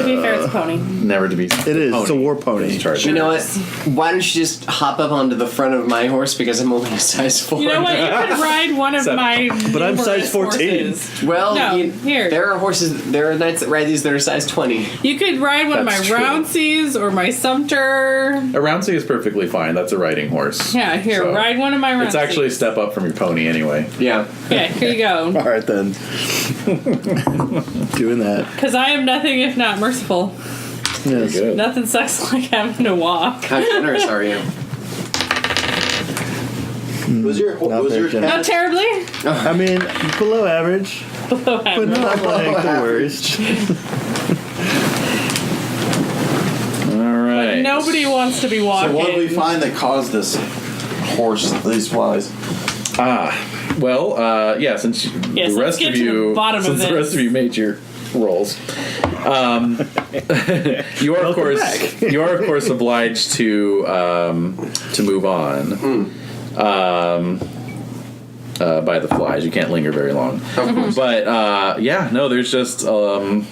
That's pony. never to be. It is. It's a war pony. You know what? Why don't you just hop up onto the front of my horse because I'm only a size four. You know what? You could ride one of my. But I'm size numerous 14. horses. Well, No, you- here. there are horses. There are knights that ride these that are size twenty. You could ride one That's of true. my Roundseys or my Sumter. A round sea is perfectly fine. That's a riding horse. Yeah, here, So, ride one of my Roundseys. It's actually a step up from your pony anyway. Yeah. Okay, here you go. All right then. Doing that. Because I am nothing if not merciful. Yes. Good. Nothing sucks like having to walk. How generous are you? Was your Not was very your generous. Not cat? terribly. I mean, below average, but not like the worst. All right. Nobody wants to be So walking. what did we find that caused this horse these flies? Ah, well, uh, yeah. Since Yes, the let's rest get of to the you, bottom of since the this. rest of you made your rolls, um, you are of course you are of course obliged to um, to move on um, uh, by the flies. You can't linger very long. But uh, yeah, no, there's just um,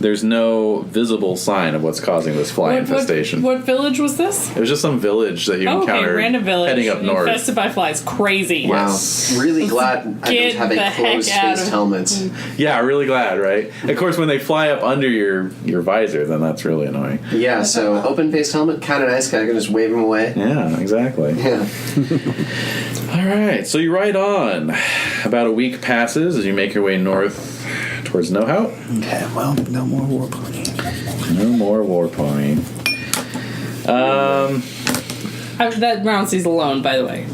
there's no visible sign of what's causing this fly what, what, infestation. what village was this? It was just some village that you Oh, okay, encountered random village. heading up north. Infested by flies. Crazy. Wow. Really glad I Get don't have the a heck closed out faced of- helmet. Yeah, really glad, right? Of course, when they fly up under your your visor, then that's really annoying. Yeah. So open faced helmet, kind of nice. 'cause I can just wave him away. Yeah, exactly. Yeah. All right, so you ride on. About a week passes as you make your way north towards Nohout. Okay, well, no more war pony. No more war pony. Um, I, that Roundsee's alone, by the way.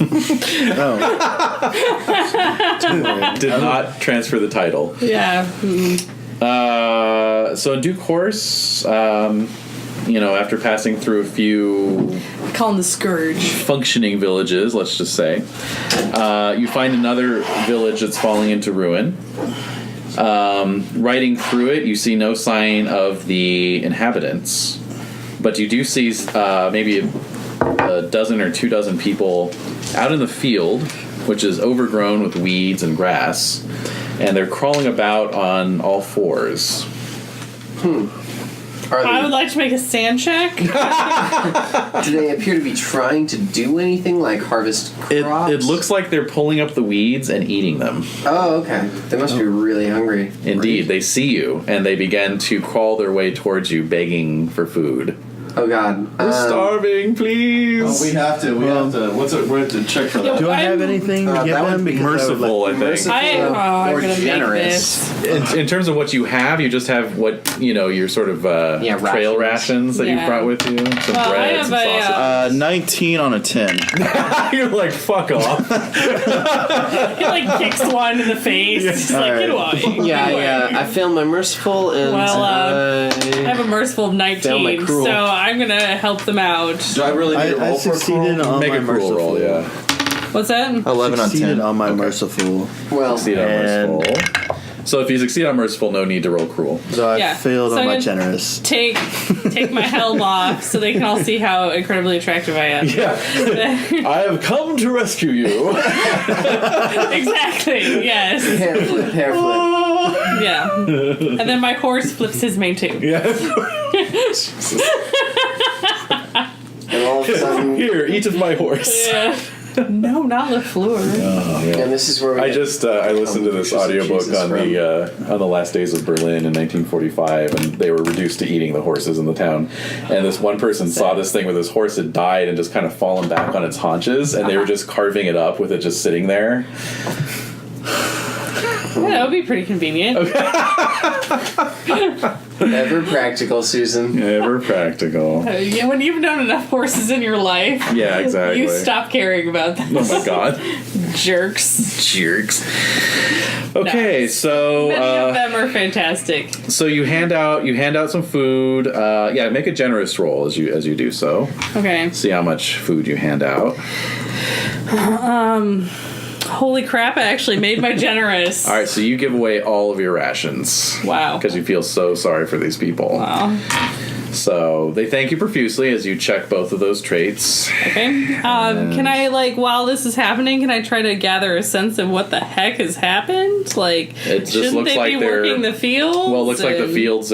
Oh, did not transfer the title. Yeah. hmm. Uh, so in due course, um, you know, after passing through a few Call him the Scourge. functioning villages, let's just say. Uh, you find another village that's falling into ruin. Um, riding through it, you see no sign of the inhabitants, but you do see uh, maybe a, a dozen or two dozen people out in the field, which is overgrown with weeds and grass, and they're crawling about on all fours. Are I would they, like to make a sand check. do they appear to be trying to do anything like harvest It, crops? it looks like they're pulling up the weeds and eating them. Oh, okay. They must be Oh. really hungry. Indeed, they see you and they begin to crawl their way towards you, begging for food. Oh God. Um, starving, Oh, we please. have to. We have to. What's it? We have to check for that. do I have I'm- anything to Uh, give that them? would be Because I would Merciful, I think. Merciful. I, oh, I'm Or gonna make generous. this. In, in terms of what you have, you just have what you know. Your sort of uh, Yeah, trail rations rations. that Yeah. you brought with you, some Well, Uh, I bread, some have a, uh, sausage. Uh, 19 on a 10. You're like, fuck off. He like kicks one in the face. He's like, get away. Yeah, Get away. yeah. I failed my merciful and. Well, uh, I uh, have a merciful of Sound like 19, cruel. so I'm gonna help them out. Do I really need I, to roll I for succeeded cruel? on Make my a cruel merciful. roll, yeah. What's that? Oh. Eleven on Succeeded ten. on my merciful. well, Succeed on And- merciful. So if you succeed on merciful, no need to roll cruel. So I Yeah, failed so on I'm my gonna- generous. Take take my helm off so they can all see how incredibly attractive I am. Yeah, I have come to rescue you. exactly. Yes. hair flip, hair flip. Yeah. And then my horse flips his mane too. yeah. And all of a sudden, Here, eat of my horse. Yeah. No, not Lafleur. and this is where we I get- just uh, I listened to this Jesus, audiobook Jesus, on the uh, on the last days of Berlin in 1945, and they were reduced to eating the horses in the town. And this one person saw this thing where this horse had died and just kind of fallen back on its haunches, and they were just carving it up with it just sitting there. Yeah, that would be pretty convenient. ever practical, Susan. Ever practical. Uh, yeah, when you've known enough horses in your life, Yeah, exactly. you stop caring about them. Oh my god, Jerks. jerks. Okay, so Many of uh, them are fantastic. so you hand out you hand out some food. Uh, yeah, make a generous roll as you as you do so. Okay. See how much food you hand out. Holy crap, I actually made my generous. All right, so you give away all of your rations. Wow. Because you feel so sorry for these people. Wow. So they thank you profusely as you check both of those traits. Okay. Um, can I, like, while this is happening, can I try to gather a sense of what the heck has happened? Like, It just shouldn't looks they like be they're- working the fields? Well, it looks like the and- fields